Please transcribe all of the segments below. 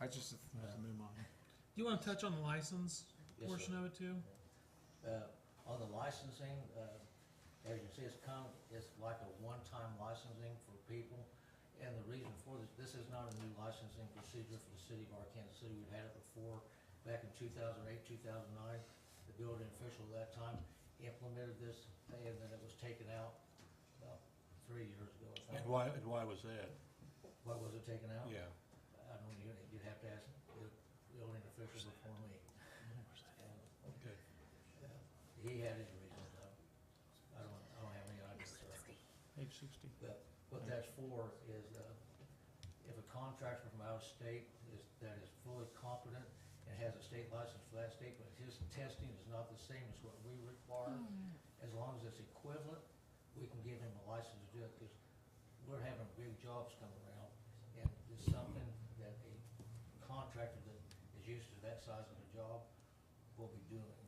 I just, Yeah. just in my mind. You wanna touch on the license Yes, portion sir. of it too? Uh, on the licensing, uh, as you see, it's come, it's like a one-time licensing for people. And the reason for this, this is not a new licensing procedure for the city of Arkansas City. We've had it before, back in two thousand eight, two thousand nine. The building official at that time implemented this, and then it was taken out about three years ago. or something. And why, and why was that? What was it taken out? Yeah. I don't, you'd you'd have to ask the building official before me. And Okay. yeah, He had his reasons, though. I don't, I don't have any idea, sir. Page sixty. But what that's for is, uh, if a contractor from out of state is, that is fully competent and has a state license for that state, but his testing is not the same as what we require, as long as it's equivalent, we can give him a license to do it, because we're having big jobs coming around, and it's something that a contractor that is used to that size of a job will be doing.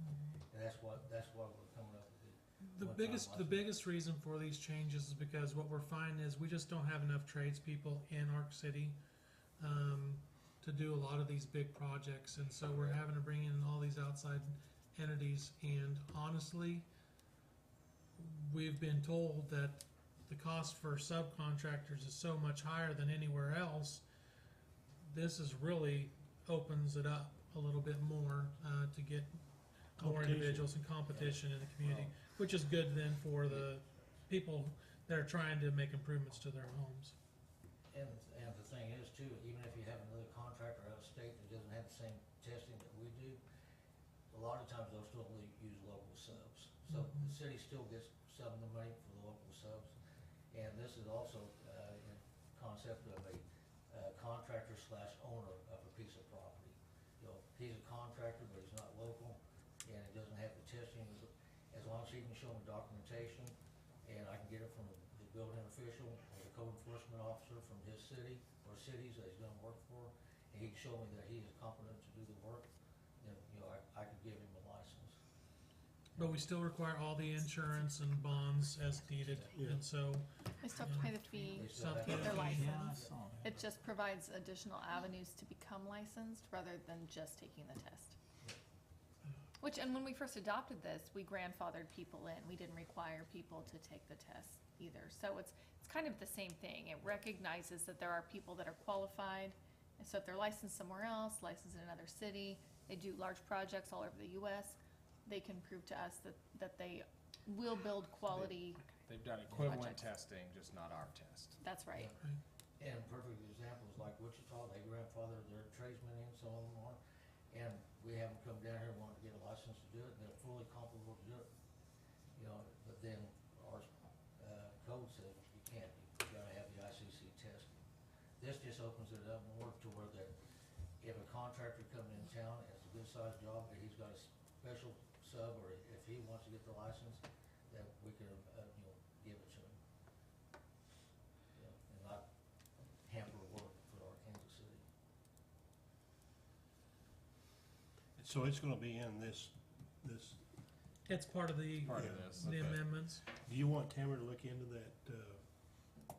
Mm-hmm. And that's what, that's why we're coming up with it. The What biggest, time the was it? biggest reason for these changes is because what we're finding is we just don't have enough tradespeople in Arc City, um, to do a lot of these big projects, and so we're having to bring in all these outside entities, and honestly, we've been told that the cost for subcontractors is so much higher than anywhere else. This is really opens it up a little bit more, uh, to get more Competition. individuals and competition in the community which is good then for the people that are trying to make improvements to their homes. And, and the thing is too, even if you have another contractor out of state that doesn't have the same testing that we do, a lot of times they'll still only use local subs. So the Mhm. city still gets some of the money for the local subs. And this is also, uh, a concept of a uh, contractor slash owner of a piece of property. You know, he's a contractor, but he's not local, and he doesn't have the testing, as long as he can show me documentation, and I can get it from the building official, or the code enforcement officer from his city, or cities that he's gonna work for, and he can show me that he is competent to do the work, then, you know, I, I could give him a license. But we still require all the insurance and bonds as needed, Yeah. and so They still have to pay the fee. They still have to- Something. Their Yeah, license. I saw that. It just provides additional avenues to become licensed rather than just taking the test. Which, and when we first adopted this, we grandfathered people in. We didn't require people to take the test either. So it's, it's kind of the same thing. It recognizes that there are people that are qualified. And so if they're licensed somewhere else, licensed in another city, they do large projects all over the US, they can prove to us that, that they will build quality, They've done equivalent Projects. testing, just not our test. that's right. And perfect examples like Wichita, they grandfather their tradesmen in, some of them are, and we have them come down here wanting to get a license to do it, and they're fully comfortable to do it. You know, but then our, uh, code says you can't, you gotta have the ICC testing. This just opens it up more to where that if a contractor comes in town, and it's a good sized job, and he's got a special sub, or if he wants to get the license, that we can, uh, you know, give it to him. You know, And not hamper work for our Kansas City. So it's gonna be in this, this, it's part of the, Part of Yeah. this. the okay. amendments. do you want Tamara to look into that, uh,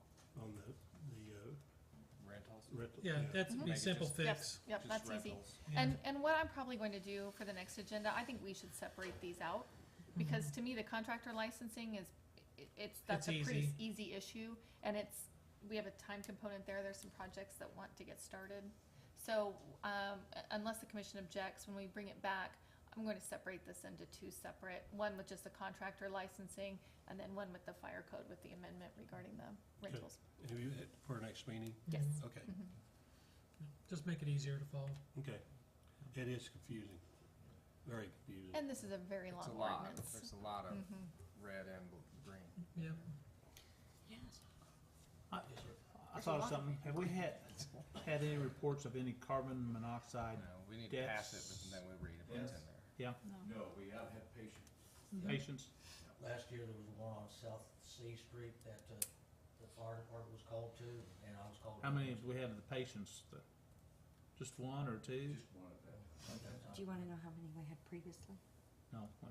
on the, the, uh, Rentals. rental? Yeah, that's be Make it simple just- fix. Yep, Just that's easy. rentals. Yeah. And, and what I'm probably going to do for the next agenda, I think we should separate these out, because to me, the contractor licensing is, it- it's, that's It's a pretty easy. s- easy issue, and it's, we have a time component there, there's some projects that want to get started. So, um, u- unless the commission objects, when we bring it back, I'm going to separate this into two separate, one with just the contractor licensing, and then one with the fire code with the amendment regarding the Okay. rentals. Do you, for our next meeting? Yes. Okay, Just make it easier to follow. okay. It is confusing, very confusing. And this is a very It's long a lot. ordinance. There's uh, a lot of Mhm. red and bl- green. Yeah. I- Yes, sir. I thought of something, have we had, had any reports of any carbon monoxide No, we need to pass it, That's- but then we read what's in there. No, we have had patients. patients? Last year, there was one on South C Street that, uh, the fire department was called to, and I was called. How many have we had of the patients? The- Just one or two? Just one of them. at that time. Do you want to know how many we had previously? No,